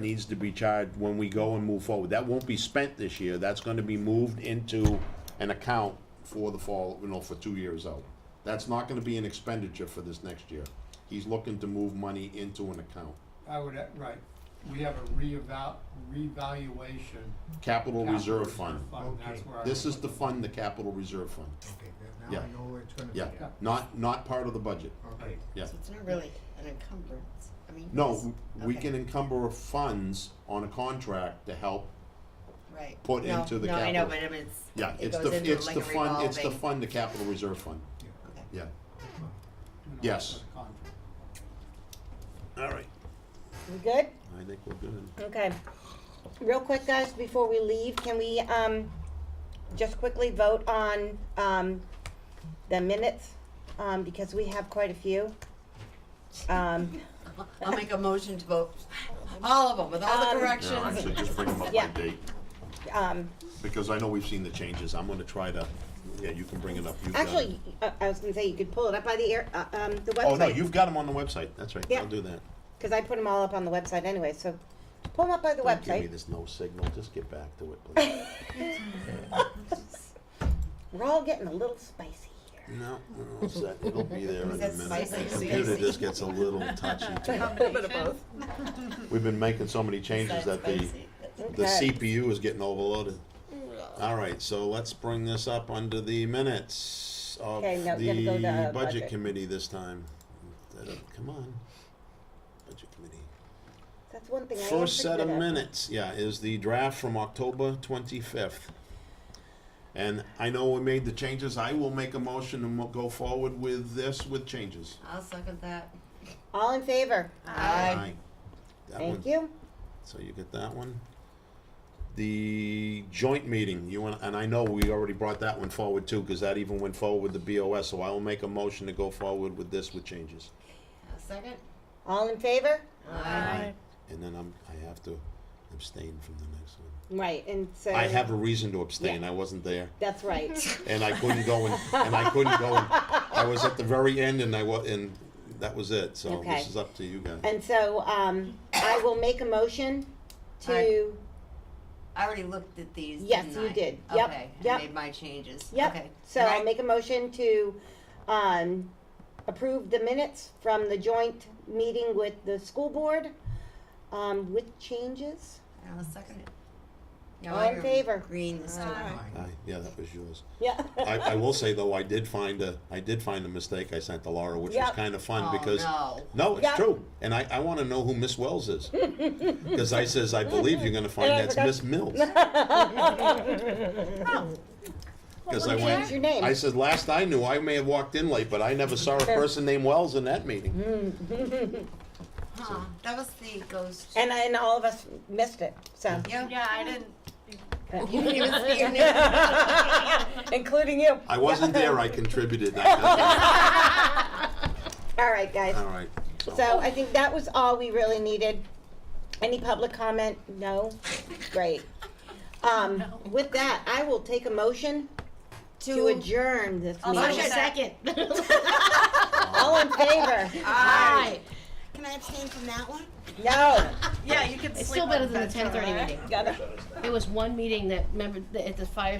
needs to be charged when we go and move forward. That won't be spent this year, that's gonna be moved into an account for the fall, you know, for two years out. That's not gonna be an expenditure for this next year. He's looking to move money into an account. I would, uh, right, we have a reeval, revaluation. Capital Reserve capital Fund. that's Okay. where I This would is the fund, the Capital Reserve Fund. Okay, that- now Yeah. I know where it's gonna be. Yeah, Yeah. not, not part of the budget. Okay, Yeah. So it's not really an encumbrance, I mean. No, it's- we okay, can encumber funds on a contract to help. Right. put No, into the No, I know, capital. but I mean, it's. Yeah, it it's goes the, into it's like the a fund, it's the revolving- fund, the Capital Reserve Fund. yeah, okay. Yeah. that's fine. do not yes. put a contract. All right. We good? I think we're good. Okay. Real quick, guys, before we leave, can we, um, just quickly vote on, um, the minutes? Um, because we have quite a few. Um, I'll make a motion to vote, all of them, with all Um, the Yeah, I should just corrections. bring them up Yeah. to date, um, because I know we've seen the changes. I'm gonna try to, yeah, you can bring it up. You've got actually, it. I, I was gonna say, you could pull it up by the air, uh, um, the website. Oh, no, you've got them on the website. That's right. Yeah. I'll do that. Cause I put them all up on the website anyway, so pull them up by the Don't give me website. this no signal. Just get back to it, please. We're all getting a little spicy here. No, we're all set. It'll be there in a That's minute. The spicy, computer spicy. just gets a little touchy too. We've been making so many changes that the, Spicy. That's- the Okay. CPU is getting overloaded. All right, so let's bring this up under the minutes of Okay, now we gotta go the to budget budget. committee this time. Uh, Come on, budget committee. That's one thing I am pretty First set of good at. minutes, yeah, is the draft from October twenty-fifth. And I know we made the changes, I will make a motion and we'll go forward with this with changes. I'll second that. All in favor? Aye. That one, Thank you. so you get that one. The joint meeting, you want, and I know we already brought that one forward too, cause that even went forward with the BOS, so I will make a motion to go forward with this with changes. I'll second. All in favor? Aye. And then I'm, I have to abstain from the next one. Right, and so. I have a reason to abstain, I wasn't there. That's right. and I couldn't go and, and I couldn't go and, I was at the very end and I wa- and that was it, so Okay. this is up to you guys. And so, um, I will make a motion to, I already looked at these, Yes, didn't you I? did. Yep, Okay, I yep. made my changes. yep, Okay. so And I'll I- make a motion to, um, approve the minutes from the joint meeting with the school board, um, with changes. I'll second it. Now All in you're favor? Green this time. Fine. I, yeah, that was yours. Yeah. I, I will say though, I did find a, I did find a mistake I sent to Laura, which was Yep. kind of fun Oh, because. no. No, it's Yep. true, and I, I want to know who Miss Wells is, because I says I believe you're going to find And I that's forgot- Oh. Miss Mills. Because I Change went, your name. I said last I knew I may have walked in late, but I never saw a person named Wells in that meeting. Huh, that was the ghost. And, and all of us missed it, so, Yeah. Yeah, I didn't. You didn't even see your name. including you. I wasn't there. I contributed. I- All right, guys. All right. So I think that was all we really needed. Any public comment? No? Great. Um, with that, I will take a motion to adjourn this meeting. second. All in favor? Aye. Can I abstain from that one? No. Yeah, you could It's still better than the ten thirty meeting. Gotta- It was one meeting that, remember, the- at the fire